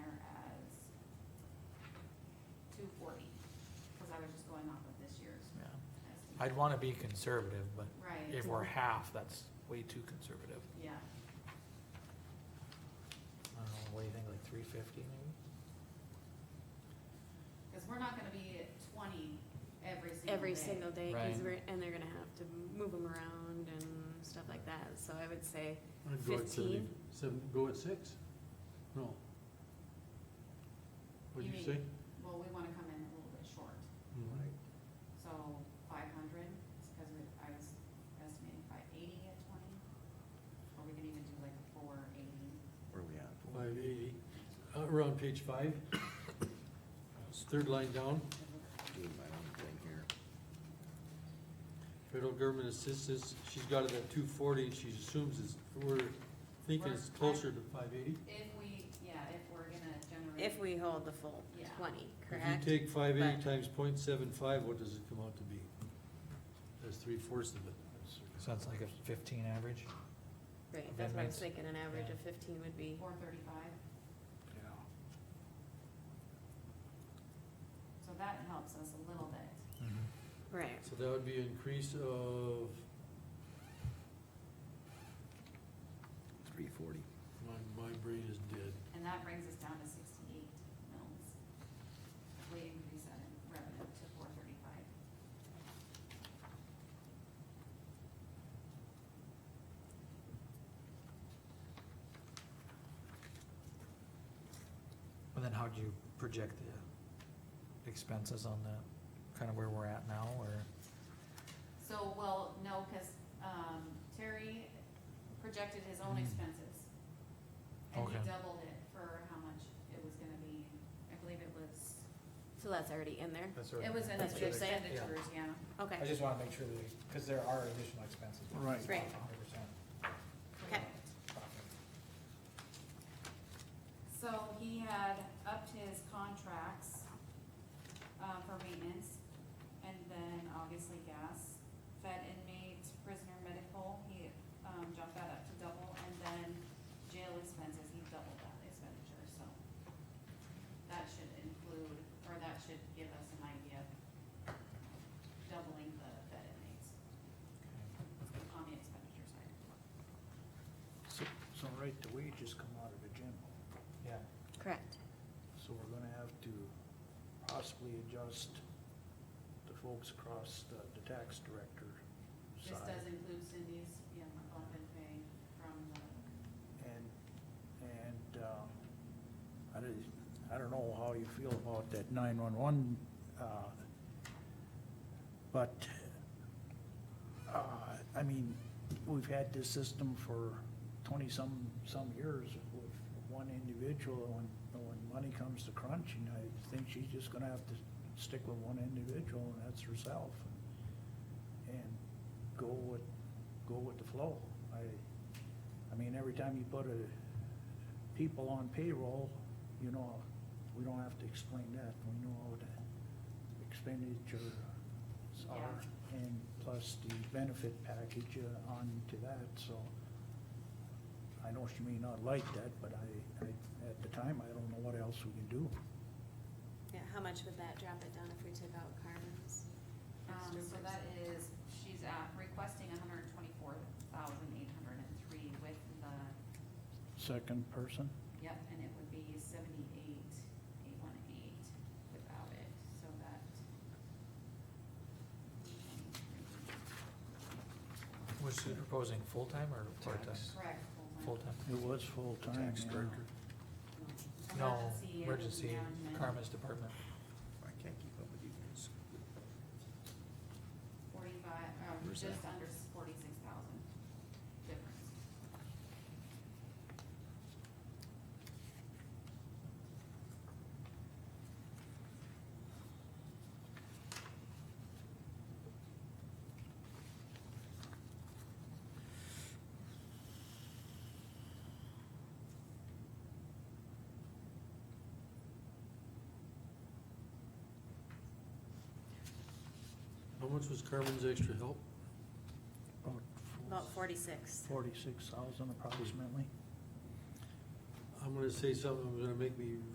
I'd wanna be conservative, but Right, if we're half, that's way too conservative. yeah, I don't know, what do you think, like three fifty maybe? cause we're not gonna be at twenty every single day. every single day, cause Right. we're, and they're gonna have to move them around and stuff like that, so I would say I'd go at seventy, fifteen. seven, go at six? No. What'd You you mean- say? Well, we wanna come in a little bit short, Mhm. so five hundred, cause we, I was estimating five eighty at twenty. Or we can even do like a four eighty. Where are we at? Five eighty, uh, we're on page five. Third line down, Doing my own thing here. federal government assistance, she's got it at two forty, and she assumes it's, we're thinking it's closer to five eighty. If we, yeah, if we're gonna generate. If we hold the full Yeah. twenty, If correct? you take five eighty But- times point seven five, what does it come out to be? That's three fourths of it. So that's like a fifteen average? Right, that's what I was amendments. thinking, an average Yeah. of fifteen would be, Four thirty-five, Yeah. so that helps us a little bit. Mm-hmm. right, So that would be an increase of, Three forty. my, my brain is dead. And that brings us down to sixty-eight mils. If we increase that in revenue to four thirty-five. And then how'd you project the expenses on that, kinda where we're at now, or? So, well, no, cause, um, Terry projected his own Mhm. expenses. And he Okay. doubled it for how much it was gonna be, I believe it was, so that's already in there, it was in That's what the you're saying? expenditures, yeah. okay. I just wanna make sure that, we- cause there are additional expenses. Right. Right. Hundred percent Okay. profit. So he had upped his contracts, uh, for maintenance, and then obviously gas. Fed inmates, prisoner medical, he, um, jumped that up to double, and then jail expenses, he doubled that expenditure, so. That should include, or that should give us an idea of doubling the fed inmates on the expenditure side. So, so right, the wages come out of the general, Yeah, Correct, so we're gonna have to possibly adjust the folks across the, the tax director This does side. include Cindy's, yeah, bump in pay from the And, and, um, I don't, I don't know how you feel about that nine-one-one, uh, but, uh, I mean, we've had this system for twenty-some, some years with one individual, and when, when money comes to crunching, I think she's just gonna have to stick with one individual, and that's herself. And go with, go with the flow. I, I mean, every time you put a, people on payroll, you know, we don't have to explain that, we know what the expenditures are, and plus the benefit package uh, on to that, so. I know she may not like that, but I, I, at the time, I don't know what else we can do. yeah, how much would that drop it down if we took out Carmen's? Um, extra so person? that is, she's at requesting hundred and twenty-four thousand eight hundred and three with the, Second person? yep, and it would be seventy-eight, eight one eight without it, so that. Was she proposing full-time or part-time? Tax. Correct, full-time. Full-time. It was full-time, Tax yeah. director. No, Emergency emergency, management, Karma's department. I can't keep up with you guys. Forty-five, um, Where's just that? under forty-six thousand difference. How much was Carmen's extra help? About About forty-six. forty-six thousand approximately. I'm gonna say something, that's gonna make me